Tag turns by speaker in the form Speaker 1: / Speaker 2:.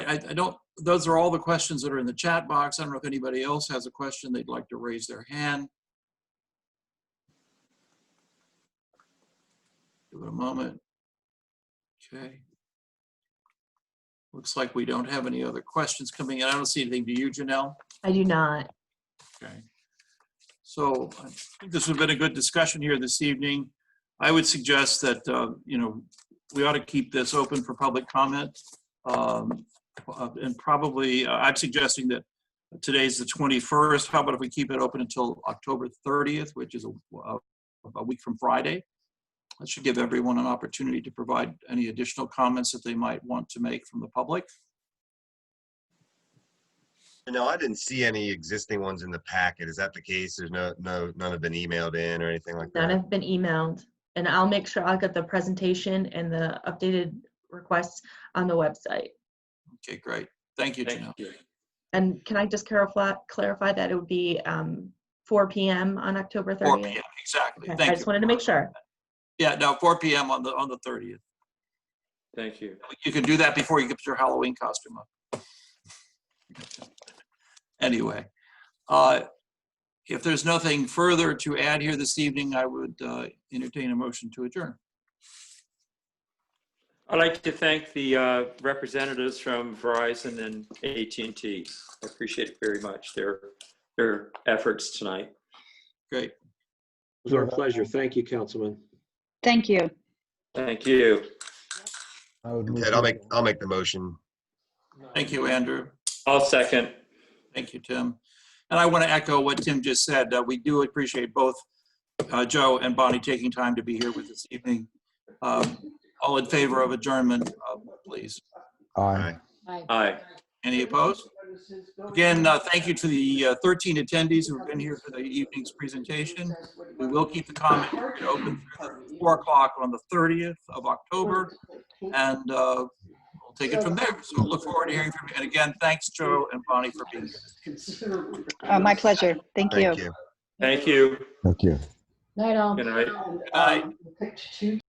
Speaker 1: I, I don't, those are all the questions that are in the chat box. I don't know if anybody else has a question they'd like to raise their hand. Give it a moment. Okay. Looks like we don't have any other questions coming in. I don't see anything. Do you, Janelle?
Speaker 2: I do not.
Speaker 1: Okay. So I think this has been a good discussion here this evening. I would suggest that, uh, you know, we ought to keep this open for public comment. Um, uh, And probably, uh, I'm suggesting that today's the 21st. How about if we keep it open until October 30th, which is a- a a week from Friday? That should give everyone an opportunity to provide any additional comments that they might want to make from the public.
Speaker 3: No, I didn't see any existing ones in the packet. Is that the case? There's no, no, none have been emailed in or anything like
Speaker 2: None
Speaker 3: that?
Speaker 2: have been emailed. And I'll make sure I'll get the presentation and the updated requests on the website.
Speaker 1: Okay, great. Thank you, Janelle.
Speaker 4: Thank you.
Speaker 2: And can I just clarify, clarify that it would be um, 4 PM on October
Speaker 1: 4
Speaker 2: 30th?
Speaker 1: PM, exactly.
Speaker 2: Okay,
Speaker 1: Thank
Speaker 2: I
Speaker 1: you.
Speaker 2: just wanted to make sure.
Speaker 1: Yeah, no, 4 PM on the, on the 30th.
Speaker 4: Thank you.
Speaker 1: You can do that before you get your Halloween costume up. Anyway, uh, if there's nothing further to add here this evening, I would uh, entertain a motion to adjourn.
Speaker 4: I'd like to thank the uh, representatives from Verizon and at and T. I appreciate it very much, their, their efforts tonight.
Speaker 1: Great.
Speaker 5: It was our pleasure. Thank you, Councilman.
Speaker 6: Thank you.
Speaker 4: Thank you.
Speaker 7: I would move.
Speaker 3: Ted,
Speaker 7: to-
Speaker 3: I'll make, I'll make the motion.
Speaker 1: Thank you, Andrew.
Speaker 4: I'll second.
Speaker 1: Thank you, Tim. And I want to echo what Tim just said. Uh, We do appreciate both uh, Joe and Bonnie taking time to be here with us this evening. Um, All in favor of adjournment, uh, please.
Speaker 7: Aye.
Speaker 4: Aye.
Speaker 1: Any opposed? Again, uh, thank you to the uh, 13 attendees who have been here for the evening's presentation. We will keep the comment period open through 4 o'clock on the 30th of October, and uh, we'll take it from there. So look forward to hearing from you. And again, thanks, Joe and Bonnie, for being here.
Speaker 6: Uh, My pleasure. Thank you.
Speaker 3: Thank you.
Speaker 4: Thank you.
Speaker 7: Thank you.
Speaker 4: Good night.
Speaker 1: Good night.